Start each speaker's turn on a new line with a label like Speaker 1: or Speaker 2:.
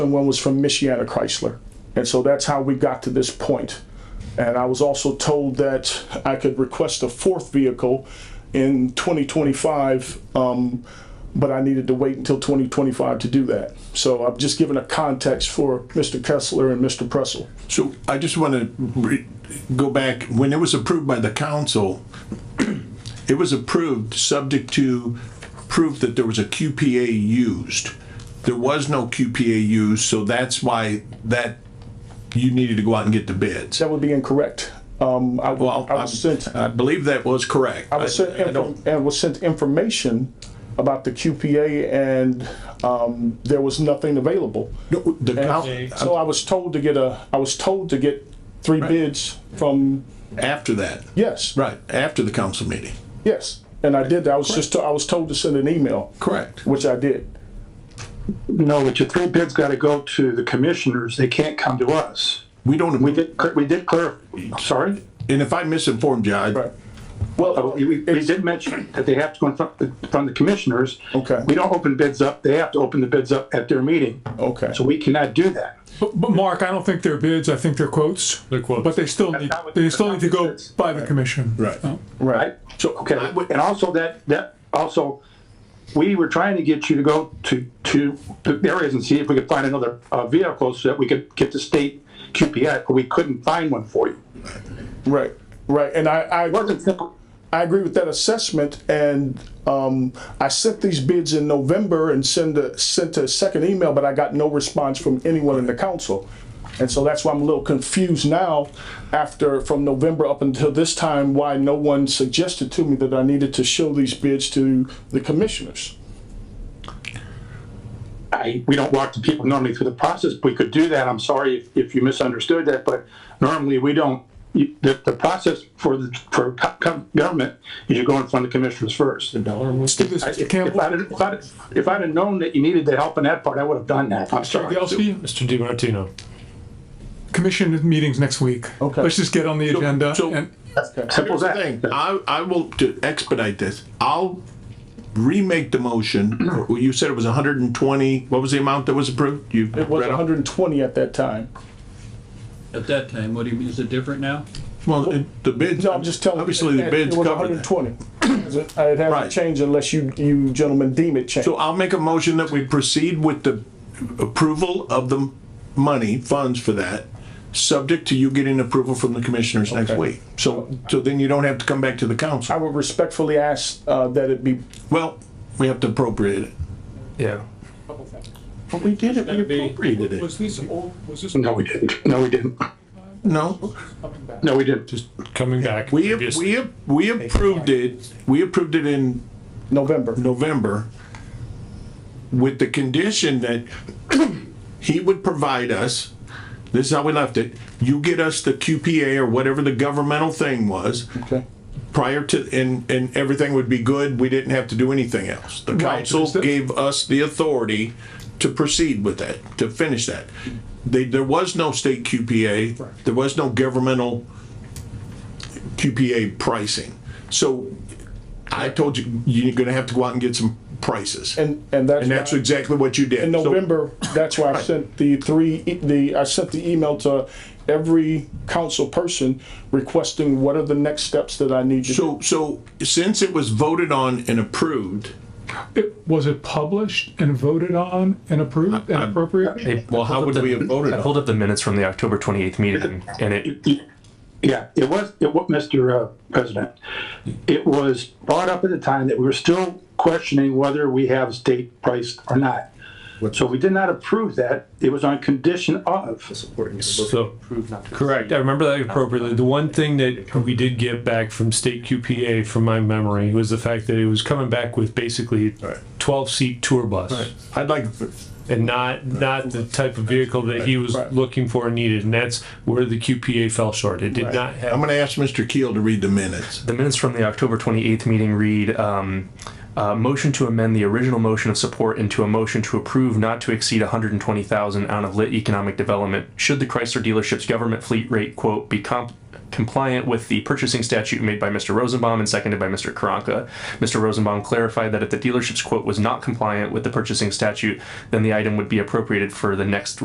Speaker 1: and one was from Michiana Chrysler. And so that's how we got to this point. And I was also told that I could request a fourth vehicle in 2025, um, but I needed to wait until 2025 to do that. So I've just given a context for Mr. Kessler and Mr. Pressel.
Speaker 2: So I just want to go back, when it was approved by the council, it was approved subject to proof that there was a QPA used. There was no QPA used, so that's why that, you needed to go out and get the bids.
Speaker 1: That would be incorrect. Um, I,
Speaker 2: Well,
Speaker 1: I was sent,
Speaker 2: I believe that was correct.
Speaker 1: I was sent,
Speaker 2: I don't-
Speaker 1: infor- and was sent information about the QPA and, um, there was nothing available.
Speaker 2: No, The, coun-
Speaker 1: So I was told to get a, I was told to get three bids from,
Speaker 2: after that,
Speaker 1: yes,
Speaker 2: right, after the council meeting,
Speaker 1: yes. And I did, that. I was just, I was told to send an email,
Speaker 2: correct?
Speaker 1: which I did.
Speaker 3: No, but your three bids gotta go to the commissioners, they can't come to us.
Speaker 2: We don't,
Speaker 3: We did, cl- we did clear, I'm sorry?
Speaker 2: and if I misinformed you, I,
Speaker 1: Right.
Speaker 3: Oh,
Speaker 1: Well,
Speaker 3: We, we did mention that they have to go in front, in front of the commissioners.
Speaker 1: Okay.
Speaker 3: We don't open bids up, they have to open the bids up at their meeting.
Speaker 1: okay.
Speaker 3: So we cannot do that.
Speaker 4: But, but Mark, I don't think they're bids. I think they're quotes. They're
Speaker 5: quotes.
Speaker 4: But they still need,
Speaker 3: not what-
Speaker 4: they
Speaker 3: that's
Speaker 4: still
Speaker 3: not
Speaker 4: need to
Speaker 3: what
Speaker 4: go
Speaker 3: it is.
Speaker 4: by the commission.
Speaker 2: Right.
Speaker 4: Oh.
Speaker 1: Right.
Speaker 3: Right? So, okay,
Speaker 2: I would-
Speaker 3: and also that, that, also, we were trying to get you to go to, to the areas and see if we could find another, uh, vehicle so that we could get the state QPI, but we couldn't find one for you.
Speaker 1: Right, right. And I, I.
Speaker 3: It wasn't simple.
Speaker 1: I agree with that assessment, and um, I sent these bids in November and send a, sent a second email, but I got no response from anyone in the council. And so that's why I'm a little confused now, after, from November up until this time, why no one suggested to me that I needed to show these bids to the commissioners.
Speaker 3: I, we don't walk the people normally through the process. We could do that. I'm sorry if, if you misunderstood that, but normally we don't. You, the, the process for the for co- co- government is you go in front of the commissioners first. If,
Speaker 4: Let's do this. Mr. Campbell,
Speaker 3: I'd, if, I'd, if I'd have known that you needed the help in that part, I would have done that. I'm sorry.
Speaker 4: Yelsey,
Speaker 5: Mr. Di Martino.
Speaker 4: commission meetings next week.
Speaker 1: Okay.
Speaker 4: Let's just get on the agenda
Speaker 2: so-
Speaker 4: and
Speaker 3: Simple as
Speaker 2: Here's
Speaker 3: that.
Speaker 2: the thing, I, I will, to expedite this, I'll remake the motion. You said it was hundred and twenty, what was the amount that was approved? You
Speaker 1: It was
Speaker 2: read off?
Speaker 1: 120 at that time.
Speaker 6: At that time, what do you mean, is it different now?
Speaker 2: Well, it- the bids,
Speaker 1: No, I'm just telling you.
Speaker 2: obviously the
Speaker 1: it-
Speaker 2: bids
Speaker 1: It was
Speaker 2: covered that.
Speaker 1: 120. It hasn't
Speaker 2: Right.
Speaker 1: changed unless you, you gentlemen deem it changed.
Speaker 2: So I'll make a motion that we proceed with the approval of the money, funds for that, subject to you getting approval from the commissioners next
Speaker 1: Okay.
Speaker 2: week. So, so then you don't have to come back to the
Speaker 1: I
Speaker 2: council.
Speaker 1: would respectfully ask uh, that it be
Speaker 2: Well, we have to appropriate it.
Speaker 5: Yeah.
Speaker 2: But we did it, we appropriated it.
Speaker 4: Was these old, was this?
Speaker 3: No, we didn't. No, we didn't.
Speaker 2: No,
Speaker 3: No, we didn't. Just
Speaker 5: Coming back.
Speaker 2: we,
Speaker 5: previous-
Speaker 2: we, we approved it, we approved it in
Speaker 1: November.
Speaker 2: November with the condition that he would provide us, this is how we left it, you get us the QPA or whatever the governmental thing was
Speaker 1: Okay.
Speaker 2: prior to, and, and everything would be good, we didn't have to do anything else. The council
Speaker 4: is that-
Speaker 2: gave us the authority to proceed with that, to finish that. They, there was no state QPA, there was no governmental QPA pricing. So I told you, you're gonna have to go out and get some prices.
Speaker 1: And, and that's.
Speaker 2: And that's
Speaker 1: why-
Speaker 2: exactly what you did.
Speaker 1: In
Speaker 2: So-
Speaker 1: November, that's why I sent the three, e- the, I sent the email to every council person requesting what are the next steps that I need you to.
Speaker 2: So, so since it was voted on and approved,
Speaker 4: It, was it published and voted on and approved and appropriated?
Speaker 5: Hey,
Speaker 2: well, how would we have voted
Speaker 5: I
Speaker 2: on?
Speaker 5: pulled up the minutes from the October 28th meeting and it,
Speaker 3: Yeah, it was, it was, Mr. uh, President, it was brought up at the time that we were still questioning whether we have state price or not. So we did not approve that. It was on condition of,
Speaker 5: so, correct. I remember that appropriately. The one thing that we did get back from state QPA from my memory was the fact that it was coming back with basically
Speaker 2: Right.
Speaker 5: 12 seat tour bus.
Speaker 2: I'd like,
Speaker 5: and not not the type of vehicle that he was
Speaker 1: Right.
Speaker 5: looking for and needed. And that's where the QPA fell short. It did not have
Speaker 2: I'm gonna ask Mr. Keel to read the minutes.
Speaker 5: the minutes from the October 28th meeting read um, uh, motion to amend the original motion of support into a motion to approve not to exceed 120,000 out of lit economic development should the Chrysler dealership's government fleet rate quote be comp- compliant with the purchasing statute made by Mr. Rosenbaum and seconded by Mr. Karanka. Mr. Rosenbaum clarified that if the dealership's quote was not compliant with the purchasing statute, then the item would be appropriated for the next